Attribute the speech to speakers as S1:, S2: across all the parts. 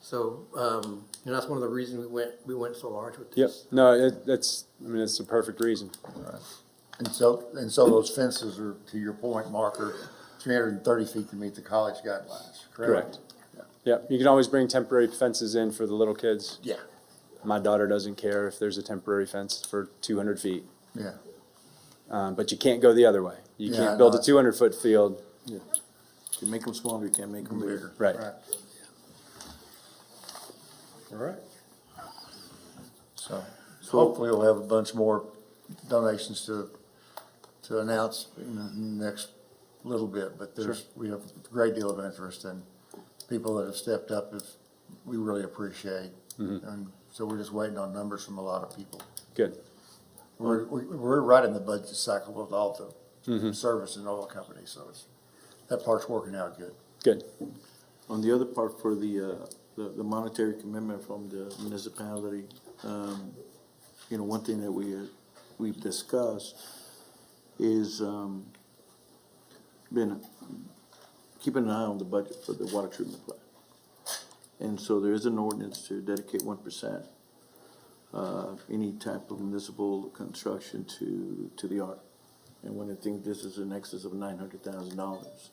S1: So, um, and that's one of the reasons we went, we went so large with
S2: Yep,
S1: this.
S2: no, it, that's, I mean, it's the perfect reason.
S3: And so, and so those fences are, to your point, Mark, are three hundred and thirty feet to meet the college guidelines,
S2: Correct.
S3: correct?
S2: Yep, you can always bring temporary fences in for the little kids.
S3: Yeah.
S2: My daughter doesn't care if there's a temporary fence for two hundred feet,
S3: Yeah,
S2: um, but you can't go the other way. You
S3: Yeah, I
S2: can't build
S3: know.
S2: a two hundred foot field,
S4: You can make them smaller, you can't make them bigger.
S2: right?
S3: right.
S4: All right.
S3: So hopefully we'll have a bunch more donations to, to announce in the next little bit. But there's, we have a great deal of interest and people that have stepped up, if, we really appreciate.
S2: Mm-hmm.
S3: And so we're just waiting on numbers from a lot of people.
S2: Good,
S3: We're, we- we're right in the budget cycle with all
S4: Mm-hmm.
S3: the service and oil companies, so it's, that part's working out good.
S2: good.
S4: On the other part for the, uh, the the monetary commitment from the municipality, um, you know, one thing that we, uh, we've discussed is, um, been keeping an eye on the budget for the water treatment plant. And so there is an ordinance to dedicate one percent, uh, any type of municipal construction to, to the art. And when I think this is in excess of nine hundred thousand dollars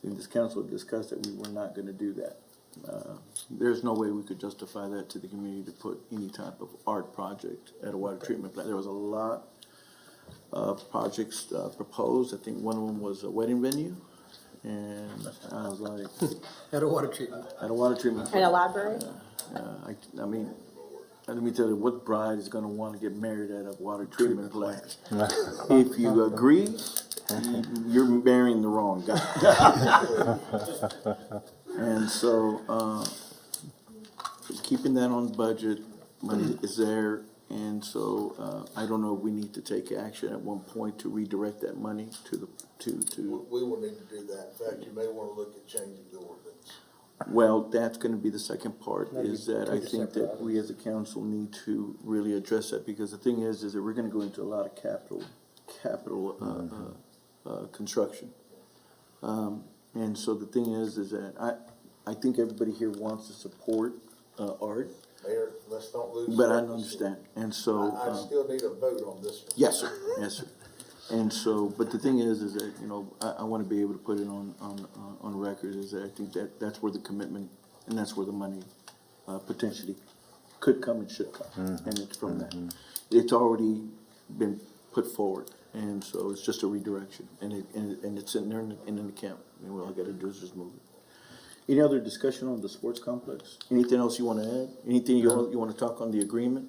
S4: think this council discussed that we were not gonna do that. Uh, There's no way we could justify that to the community to put any type of art project at a water treatment plant. There was a lot of projects uh, proposed. I think one of them was a wedding venue. And I was like,
S1: At a water treatment.
S4: at a water treatment
S5: In
S4: plant.
S5: a library?
S4: Uh, I, I mean, let me tell you, what bride is gonna wanna get married at a water treatment plant? If you agree, you- you're marrying the wrong guy. And so, uh, keeping that on budget, money is there, and so, uh, I don't know if we need to take action at one point to redirect that money to the, to, to.
S6: We will need to do that. In fact, you may want to look at changing the ordinance.
S4: Well, that's gonna be the second part, is that I think that we as a council need to really address that, because the thing is, is that we're gonna go into a lot of capital, capital, uh, uh, uh, construction. Um, and so the thing is, is that I, I think everybody here wants to support, uh, art,
S6: Mayor, let's not lose.
S4: but I
S6: focus.
S4: don't understand, and so.
S6: I, I
S4: um,
S6: still need a vote on this one.
S4: Yes, sir, yes, sir. And so, but the thing is, is that, you know, I, I wanna be able to put it on, on, on- on record, is that I think that, that's where the commitment, and that's where the money, uh, potentially could come and should come, and it's from that. It's already been put forward, and so it's just a redirection, and it, and, it- and it's in there, in in an account, and all I gotta do is just move it. Any other discussion on the sports complex? Anything else you wanna add? Anything you, wanna- you wanna talk on the agreement?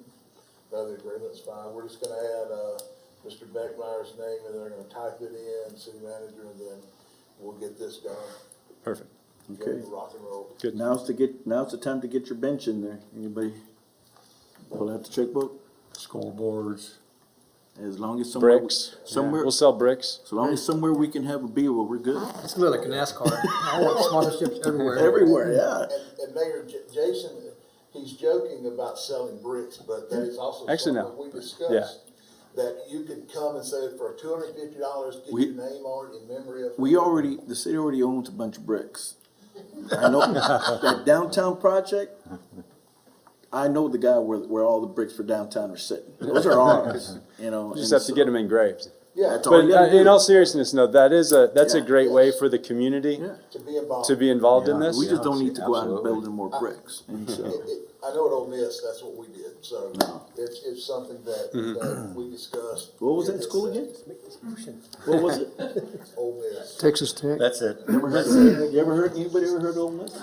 S6: Another agreement's fine. We're just gonna add, uh, Mr. Beckmeyer's name and they're gonna type it in, city manager, and then we'll get this done.
S2: Perfect.
S6: Get it
S4: Okay.
S6: Rock and roll.
S2: Good.
S4: Now's to get, now's the time to get your bench in there. Anybody pull out the checkbook?
S3: Scoreboards,
S4: As long as somewhere.
S2: Bricks,
S4: Somewhere,
S2: we'll sell bricks.
S4: so long as somewhere we can have a beer, well, we're good.
S1: It's gonna be like a NASCAR. I want sponsorships everywhere.
S4: Everywhere, yeah.
S6: And, and Mayor J- Jason, he's joking about selling bricks, but that is also
S2: Actually,
S6: something
S2: no.
S6: we
S2: Yeah.
S6: discussed. That you could come and say for two hundred and fifty dollars, get
S4: We-
S6: your name on it in memory of.
S4: We already, the city already owns a bunch of bricks. I know, that downtown project, I know the guy where, where all the bricks for downtown are sitting. Those are ours, you know.
S2: Just
S4: and
S2: have to get
S4: so-
S2: them engraved.
S6: Yeah,
S4: That's all
S2: But
S4: you
S2: uh,
S4: gotta
S2: in
S4: do.
S2: all seriousness, no, that is a, that's a
S4: Yeah.
S2: great way for the community
S4: Yeah.
S6: to be involved.
S2: to be involved in this.
S4: We just don't need to go out and
S7: Absolutely.
S4: build any more bricks, and so.
S6: It- it- I know at Ole Miss, that's what we did, so it's, it's something that, that we discussed.
S4: Mm-hmm. What was that school again?
S1: Make this motion.
S4: What was it?
S6: Ole Miss.
S1: Texas Tech.
S3: that's it.
S4: Ever heard- You ever heard, anybody ever heard Ole Miss?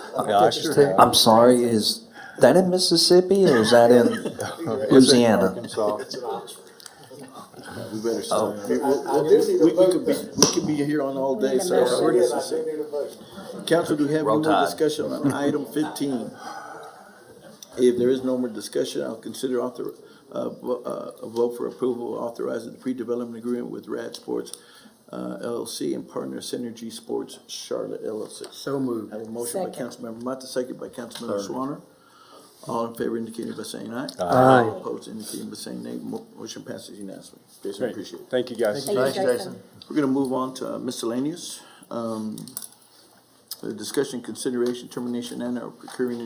S7: I'm sorry, is that in Mississippi or is that in Louisiana?
S6: It's in Oxford.
S4: We better start. Oh. We,
S6: I do need
S4: we-
S6: a
S4: we
S6: vote
S4: could be,
S6: though.
S4: we could be here on all day, so.
S6: Yes, we did, I do need a vote.
S4: Council, do you have any
S7: Roll
S4: more
S7: Tide.
S4: discussion on item fifteen? If there is no more discussion, I'll consider author, uh, vo- uh, a vote for approval authorizing the pre-development agreement with Rad Sports uh, LLC and partner Synergy Sports Charlotte LLC.
S1: So moved.
S4: I have a motion by
S5: Second.
S4: Councilmember Mata, second by Councilmember Swanner. All in favor indicating by saying aye.
S1: Aye.
S4: All Opposed indicating by saying nay. Mo- Motion passes unanimously. Jason,
S2: Great.
S4: appreciate it.
S2: Thank you, guys.
S5: Thank you,
S3: Thanks,
S5: Jason.
S3: Jason.
S4: We're gonna move on to miscellaneous. Um, uh, discussion, consideration, termination, and or procuring